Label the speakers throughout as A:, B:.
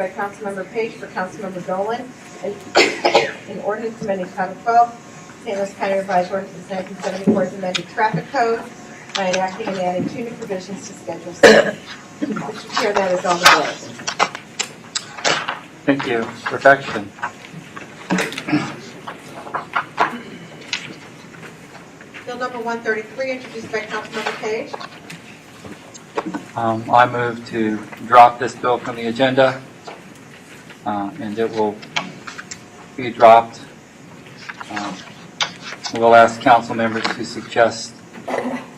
A: by Councilmember Page for Councilmember Dolan, an an ordinance amending Title 12, St. Louis County Revised Ordinance 1974 as amended traffic code by enacting and adding two new provisions to Schedule C. Mr. Chair, that is all the bills.
B: Thank you. Perfection.
A: Bill number 133, introduced by Councilmember Page.
B: Um, I move to drop this bill from the agenda, uh, and it will be dropped. Um, We'll ask council members to suggest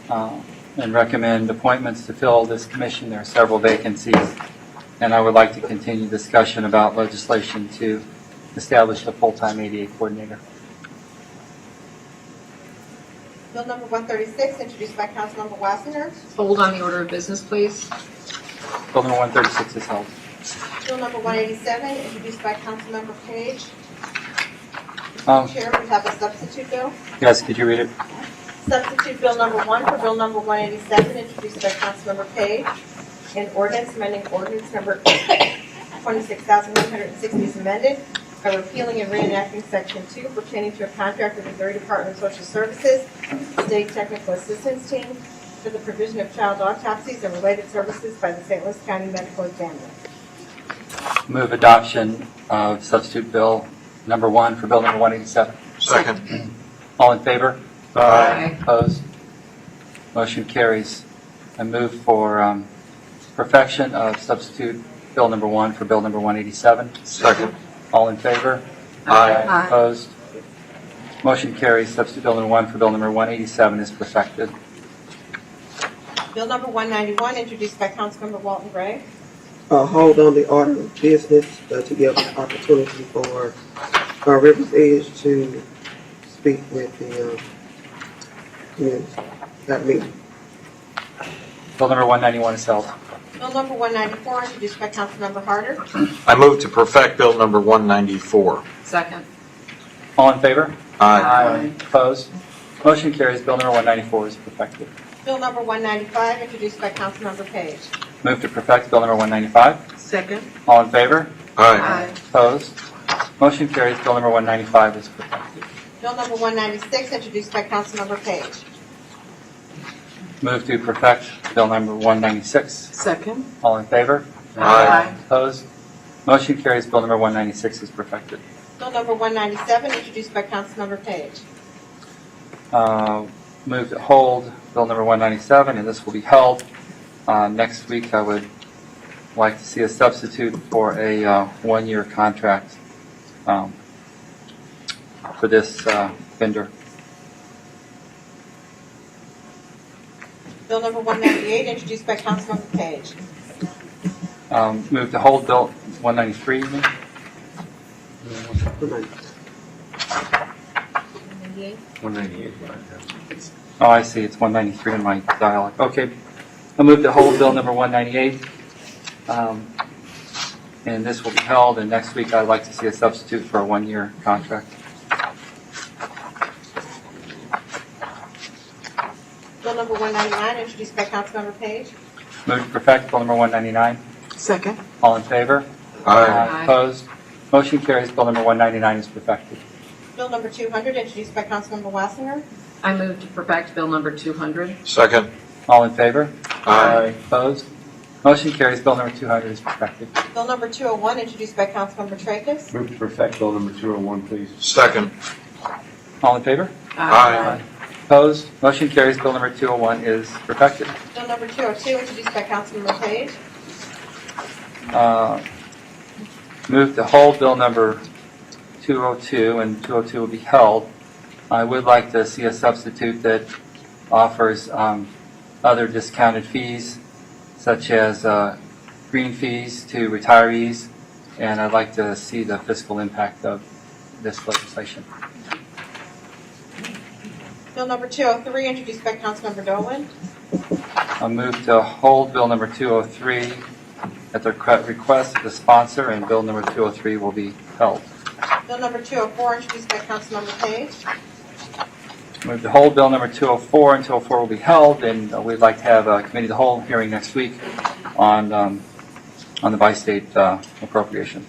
B: uh, and recommend appointments to fill this commission. There are several vacancies, and I would like to continue discussion about legislation to establish a full-time ADA coordinator.
A: Bill number 136, introduced by Councilmember Wassinger.
C: Hold on the order of business, please.
B: Bill number 136 is held.
A: Bill number 187, introduced by Councilmember Page.
B: Um,
A: Mr. Chair, we have a substitute bill.
B: Yes, could you read it?
A: Substitute Bill Number 1 for Bill Number 187, introduced by Councilmember Page, an ordinance amending ordinance Number 26,160 is amended by repealing and reenacting Section 2 pertaining to a contract with the Missouri Department of Social Services State Technical Assistance Team for the provision of child autopsies and related services by the St. Louis County Medical Examiner.
B: Move adoption of substitute bill number one for bill number 187.
D: Second.
B: All in favor?
C: Aye.
B: Opposed? Motion carries. I move for um, perfection of substitute bill number one for bill number 187.
D: Second.
B: All in favor?
C: Aye.
B: Opposed? Motion carries. Substitute bill number one for bill number 187 is perfected.
A: Bill Number 191, introduced by Councilmember Walton Gray.
E: uh, hold on the order of business uh, to give opportunity for uh, Rivers Edge to speak with the, uh, community, that meeting.
B: Bill number 191 is held.
A: Bill Number 194, introduced by Councilmember Harder.
D: I move to perfect Bill number 194.
C: Second.
B: All in favor?
D: Aye.
C: Aye.
B: Opposed? Motion carries. Bill number 194 is perfected.
A: Bill number 195, introduced by Councilmember Page.
B: Move to perfect bill number 195.
C: Second.
B: All in favor?
D: Aye.
B: Opposed? Motion carries. Bill number 195 is perfected.
A: Bill number 196, introduced by Councilmember Page.
B: Move to perfect Bill number 196.
C: Second.
B: All in favor?
D: Aye.
B: Opposed? Motion carries. Bill number 196 is perfected.
A: Bill number 197, introduced by Councilmember Page.
B: Uh, Move to hold Bill number 197, and this will be held. Uh, Next week, I would like to see a substitute for a uh, one-year contract um, for this uh, vendor.
A: Bill number 198, introduced by Councilmember Page.
B: Um, Move to hold Bill 193, you mean?
E: Come on.
B: Oh, I see, it's 193 in my dialogue. Okay, I move to hold Bill number 198. Um, And this will be held, and next week I'd like to see a substitute for a one-year contract.
A: Bill number 199, introduced by Councilmember Page.
B: Move to perfect Bill number 199.
C: Second.
B: All in favor?
D: Aye.
B: Opposed? Motion carries, Bill number 199 is perfected.
A: Bill number 200, introduced by Councilmember Wassinger.
C: I move to perfect Bill number 200.
D: Second.
B: All in favor?
D: Aye.
B: Opposed? Motion carries, Bill number 200 is perfected.
A: Bill number 201, introduced by Councilmember Tracus.
F: Move to perfect bill number 201, please.
D: Second.
B: All in favor?
D: Aye.
B: Opposed? Motion carries, Bill number 201 is perfected.
A: Bill number 202, introduced by Councilmember Page.
B: Uh, Move to hold bill number 202, and 202 will be held. I would like to see a substitute that offers um, other discounted fees, such as uh, green fees to retirees, and I'd like to see the fiscal impact of this legislation.
A: Bill number 203, introduced by Councilmember Dolan.
B: I move to hold bill number 203 at the cre- request of the sponsor, and bill number 203 will be held.
A: Bill number 204, introduced by Councilmember Page.
B: Move to hold Bill number 204 and 204 uh, will be held, and uh, we'd like to have a committee of the whole hearing next week on um, on the by-state uh, appropriation.